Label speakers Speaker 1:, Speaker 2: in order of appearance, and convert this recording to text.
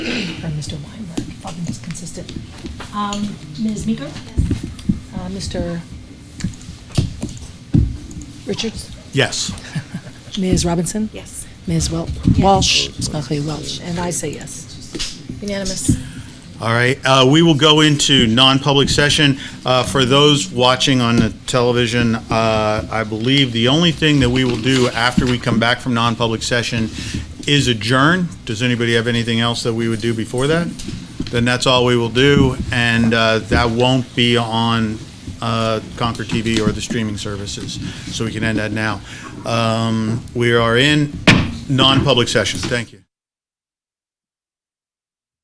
Speaker 1: Mr. Weinberg, if I'm just consistent. Um, Ms. Meeker? Uh, Mr. Richards?
Speaker 2: Yes.
Speaker 1: Ms. Robinson?
Speaker 3: Yes.
Speaker 1: Ms. Wel- Walsh? Smiley Welch. And I say yes. Unanimous.
Speaker 2: All right, uh, we will go into non-public session. Uh, For those watching on the television, uh, I believe the only thing that we will do after we come back from non-public session is adjourn. Does anybody have anything else that we would do before that? Then that's all we will do, and uh, that won't be on uh, Concord TV or the streaming services. So we can end that now. Um, We are in non-public session. Thank you.